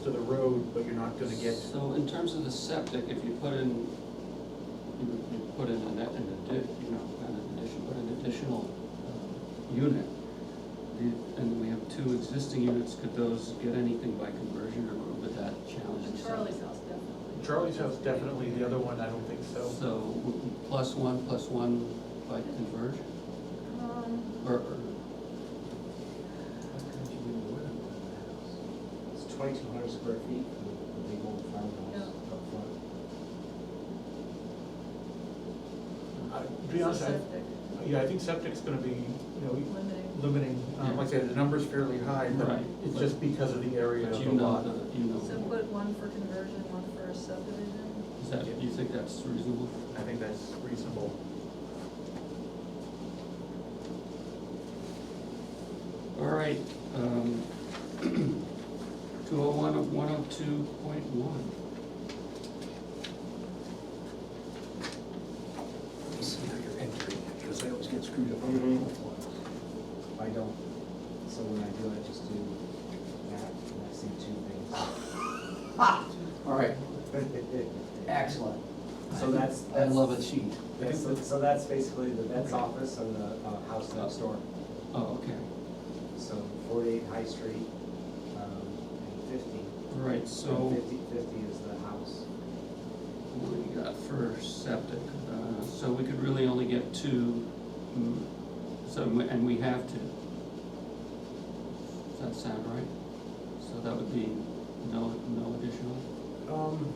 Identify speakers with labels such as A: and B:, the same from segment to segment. A: to the road, but you're not gonna get,
B: So in terms of the septic, if you put in, you would you put in an, an addi, you know, not an addition, but an additional uh, unit. the- And we have two existing units, could those get anything by conversion or would that challenge the septic?
C: Charlie's house, definitely.
D: Charlie's house definitely, the other one, I don't think so.
B: So would be plus one, plus one by conversion
C: Um,
B: or, or
E: It's twenty-two hundred square feet for the the big old farmhouse
C: Yeah.
E: up front.
D: Uh, To be honest, I,
C: Septic,
D: yeah, I think septic's gonna be, you know,
C: limiting.
D: limiting, um, like I said, the number's fairly high, but
B: Right.
D: it's just because of the area
B: but
D: of
B: you
D: the
B: know,
D: lot.
B: the- you
C: So
B: know,
C: put one for conversion, one for a subdivision.
B: is that, do you think that's reasonable?
D: I think that's reasonable.
B: All right, um, two oh one of one oh two point one.
E: You see how you're entering, because I always get screwed up
A: on the
F: Mm-hmm.
A: Mhm.
E: I don't, so when I do, I just do that, and I see two things.
F: All right, excellent. So that's,
E: I
F: that's.
E: love
F: it. sheet.
E: Yeah, so, so that's basically the vet's office and the, uh, house next door.
B: Oh, okay,
E: So forty-eight High Street, um, and fifty.
B: all right, so
E: Fifty, fifty is the house.
B: what do we got for septic? Uh, so we could really only get two, mm, so, we- and we have two. Does that sound right? So that would be no, no additional?
D: Um,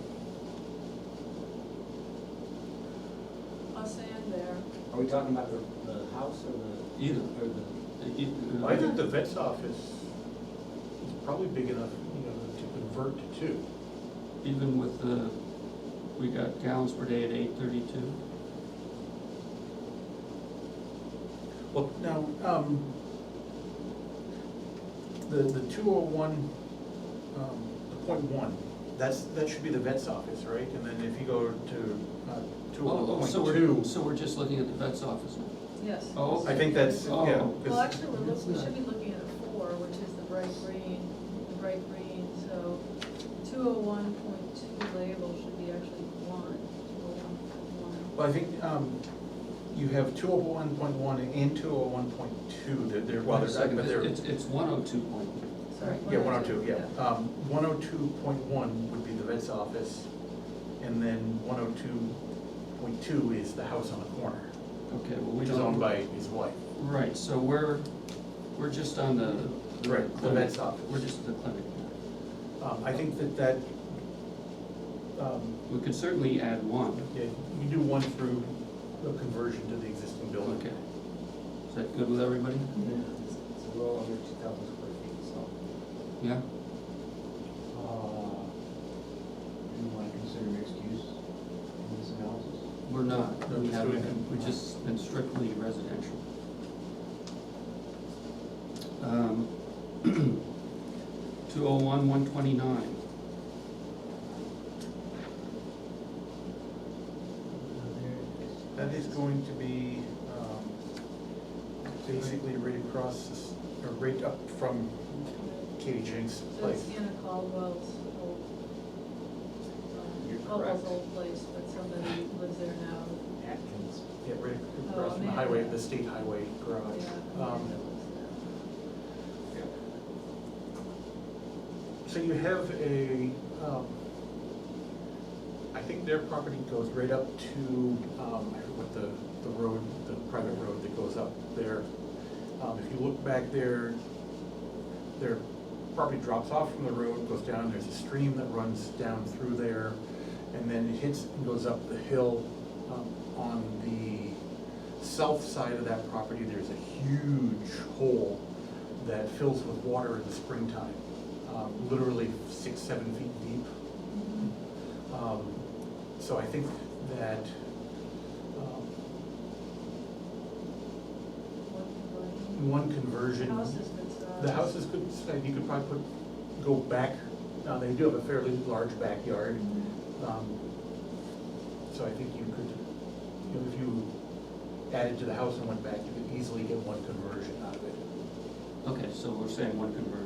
C: Us and there.
E: Are we talking about the, the house or
B: Either.
E: the, or the,
B: Uh, e- uh,
D: I think the vet's office is probably big enough, you know, to convert to two.
B: Even with the, we got gallons per day at eight thirty-two?
D: Well, now, um, the, the two oh one, um, the point one, that's, that should be the vet's office, right? And then if you go to, uh, two oh one
B: So
D: point
B: we're,
D: two,
B: so we're just looking at the vet's office now?
C: Yes.
B: Oh,
D: I think that's, yeah.
B: Oh.
D: 'cause-
C: Well, actually, we're looking, we should be looking at four, which is the bright green, the bright green, so two oh one point two label should be actually one, two oh one point one.
D: Well, I think, um, you have two oh one point one and two oh one point two, they're, they're, well, they're, but they're.
B: It's, it's one oh two point one.
C: Sorry.
D: Yeah, one oh two, yeah. Um, one oh two point one would be the vet's office, and then one oh two point two is the house on the corner,
B: Okay, well, we
D: which is
B: don't.
D: owned by his wife.
B: Right, so we're, we're just on the. the
D: Right, the
B: clinic.
D: vet's office.
B: We're just the clinic.
D: Um, I think that that, um,
B: We could certainly add one.
D: yeah, you do one through the conversion to the existing building.
B: Okay. Is that good with everybody?
E: it's it's a little under two thousand square feet, so.
B: Yeah?
F: Uh, Do you want to consider mixed use in this analysis?
B: We're not.
D: No,
B: We
D: just
B: haven't,
D: doing-
B: we've just been strictly residential. Um, 201, 129.
D: That is going to be, um, basically right across, this- or right up from Katie Jenks'
C: So
D: place.
C: it's Anna Caldwell's old,
D: You're
C: um,
D: correct.
C: Caldwell's old place, but somebody lives there now.
E: Atkins.
D: Yeah, right
C: Oh,
D: across from the
C: man.
D: highway, the state highway
C: Yeah.
D: garage. Um,
C: that lives there.
D: So you have a, um, I think their property goes right up to, um, I forget what the, the road, the private road that goes up there. Um, if you look back there, their property drops off from the road, goes down, there's a stream that runs down through there, and then it hits and goes up the hill. Um, On the south side of that property, there's a huge hole that fills with water in the springtime, um, literally six, seven feet deep. Um, So I think that, um,
C: What-
D: one
C: what-
D: conversion.
C: House has been sold.
D: The house is good, size. you could probably put, go back, now they do have a fairly large backyard. um, So I think you could, you know, if you added to the house and went back, you could easily get one conversion out of it.
B: Okay, so we're saying one conversion.